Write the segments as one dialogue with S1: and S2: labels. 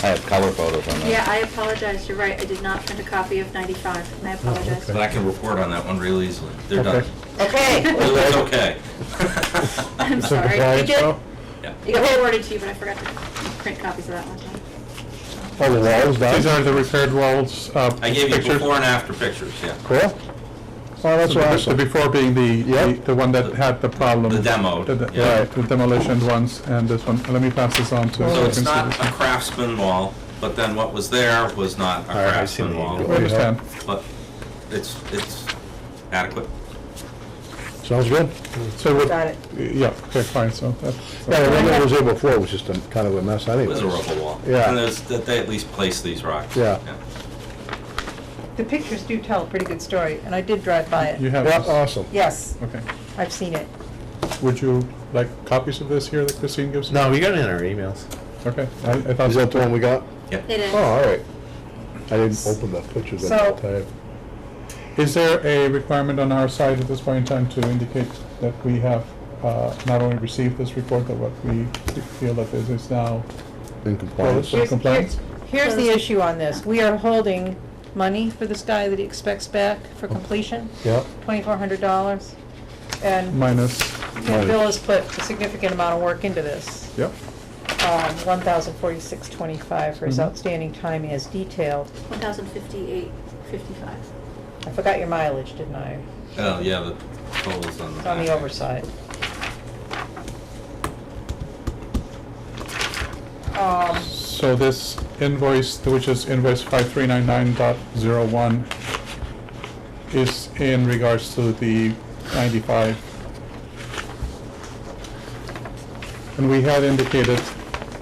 S1: I have color photos on that.
S2: Yeah, I apologize, you're right, I did not print a copy of 95, I apologize.
S3: But I can report on that one real easily. They're done.
S4: Okay.
S5: Okay,
S3: It's okay.
S2: I'm
S4: Some
S2: sorry, you
S4: compliance,
S2: did,
S4: well,
S3: Yeah.
S2: you got forwarded to you, but I forgot to print copies of that one time.
S4: Oh, the wall's
S6: These
S4: done.
S6: are the repaired walls, uh,
S3: I gave you
S6: pictures.
S3: before and after pictures, yeah.
S4: Cool. Oh, that's
S6: So The
S4: awesome.
S6: the before being the- the,
S4: Yep.
S6: the one that had the problem.
S3: The demo,
S6: The de-
S3: yeah.
S6: Right, the demolition ones and this one. Let me pass this on to.
S3: So it's
S6: Oh, can see
S3: not
S6: this.
S3: a craftsman wall, but then what was there was not a
S4: right, I see
S3: craftsman
S4: what you
S3: wall.
S4: did.
S6: I understand.
S3: But it's, it's adequate.
S4: Sounds good.
S6: So what?
S5: Got it.
S6: Yeah, okay, fine, so that's.
S4: Yeah, the one that was there before was just a kind of a mess
S3: It
S4: anyway.
S3: was a rubble wall.
S4: Yeah.
S3: And there's, that they at least placed these rocks.
S4: Yeah.
S5: the pictures do tell a pretty good story, and I did drive by
S6: You
S5: it.
S6: have
S4: Yeah, uh,
S6: this?
S4: awesome.
S5: Yes,
S6: Okay.
S5: I've seen it.
S6: Would you like copies of this here that Christine gives?
S7: No, we got it in our emails.
S6: Okay, I, I thought.
S4: Is that the one we got?
S3: Yeah.
S2: It is.
S4: Oh, all right. I didn't open the pictures at
S5: So-
S4: that time.
S6: Is there a requirement on our side at this point in time to indicate that we have uh, not only received this report, but what we feel that this is now
S4: In compliance.
S6: So
S5: Here's-
S6: complaints?
S5: here- Here's the issue on this. We are holding money for this guy that he expects back for
S6: Oh.
S5: completion,
S4: Yeah,
S5: twenty-four hundred dollars. And
S6: minus?
S5: and Bill has put a significant amount of work into this.
S6: Yep.
S5: Um, one thousand forty-six twenty-five for his
S6: Mhm.
S5: outstanding time as detailed.
S2: 1,058, 55.
S5: I forgot your mileage, didn't I?
S3: Oh, yeah, the total's on the
S5: It's on the
S3: back.
S5: overside. Um,
S6: So this invoice, which is invoice 5399.01, is in regards to the 95. And we had indicated,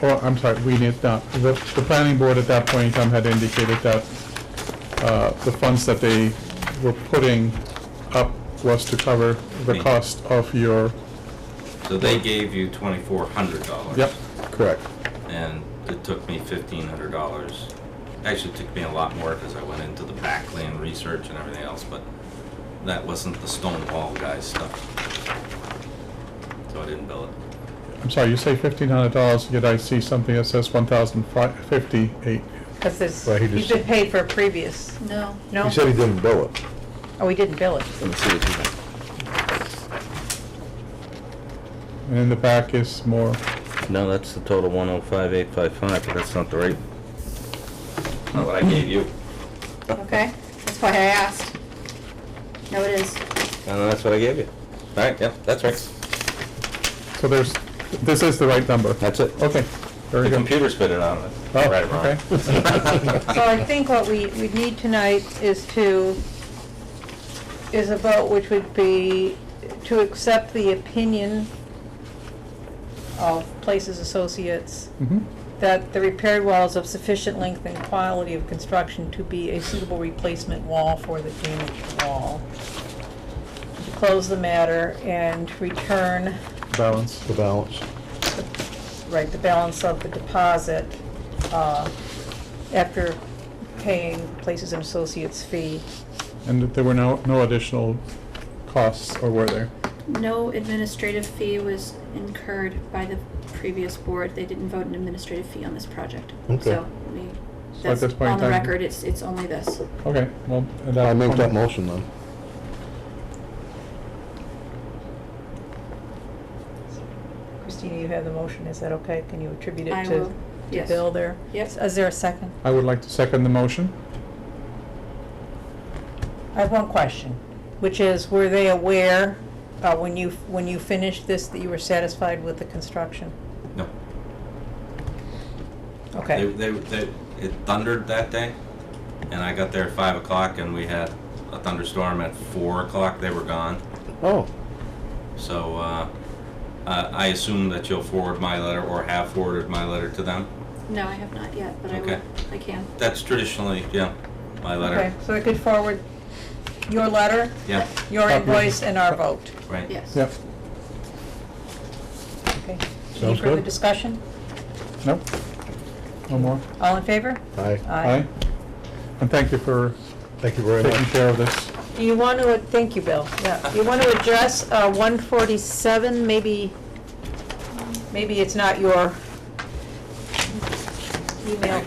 S6: oh, I'm sorry, we need not, the, the planning board at that point in time had indicated that uh, the funds that they were putting up was to cover the
S3: Mm.
S6: cost of your,
S3: So they gave you twenty-four hundred dollars.
S6: yep,
S4: correct.
S3: And it took me fifteen hundred dollars. Actually, it took me a lot more because I went into the backland research and everything else, but that wasn't the stone wall guy's stuff. So I didn't bill it.
S6: I'm sorry, you say $1,500, yet I see something that says 1,058.
S5: Because this,
S4: Well, he
S5: he's
S4: just-
S5: been paid for a previous,
S2: No.
S5: no?
S4: He said he didn't bill it.
S5: Oh, he didn't bill it.
S1: Let me see what you got.
S6: And in the back is more,
S1: No, that's the total one oh five eight five five, but that's not the right.
S3: Not what I gave you.
S2: Okay, that's why I asked. No, it is.
S1: And that's what I gave you. All right, yeah, that's right.
S6: so there's, this is the right number.
S1: That's it.
S6: Okay, very
S3: The
S6: good.
S3: computer spit it out.
S6: Oh,
S3: Right or wrong.
S1: okay.
S5: So I think what we, we need tonight is to, is a vote which would be to accept the opinion of Places Associates
S6: Mhm.
S5: that the repaired wall is of sufficient length and quality of construction to be a suitable replacement wall for the damaged wall. To Close the matter and return,
S6: Balance.
S4: The balance.
S5: right, the balance of the deposit, uh, after paying Places and Associates fee.
S6: And that there were no, no additional costs, or were there?
S2: No administrative fee was incurred by the previous board. They didn't vote an administrative fee on this project.
S4: Okay.
S2: So we,
S6: So at
S2: that's
S6: this point in
S2: on the
S6: time-
S2: record, it's, it's only this.
S6: Okay, well. at that
S4: I make
S6: point-
S4: that motion then.
S5: Christina, you have the motion, is that okay? Can you attribute it
S2: I
S5: to,
S2: will,
S5: to
S2: yes.
S5: Bill there?
S2: Yes.
S5: Is there a second?
S6: I would like to second the motion.
S5: I have one question, which is, were they aware, uh, when you, when you finished this, that you were satisfied with the construction?
S3: No. They,
S5: Okay,
S3: they, they, it thundered that day, and I got there at five o'clock, and we had a thunderstorm at four o'clock. They were gone.
S4: Oh,
S3: So uh, uh, I assume that you'll forward my letter or have forwarded my letter to them.
S2: No, I have not yet, but I will,
S3: Okay.
S2: I can.
S3: That's traditionally, yeah, my
S5: okay,
S3: letter.
S5: so I could forward your letter,
S3: Yeah,
S5: your
S6: Copy.
S5: invoice, and our vote,
S3: right.
S2: Yes.
S6: Yep,
S5: okay? Any
S4: Sounds
S5: further
S4: good.
S5: discussion?
S6: no? No more?
S5: All in favor?
S4: aye.
S6: Aye. And thank you for
S4: Thank you very
S6: taking
S4: much.
S6: care of this.
S5: Do you want to, thank you, Bill, yeah, you want to address, uh, one forty-seven, maybe, maybe it's not your email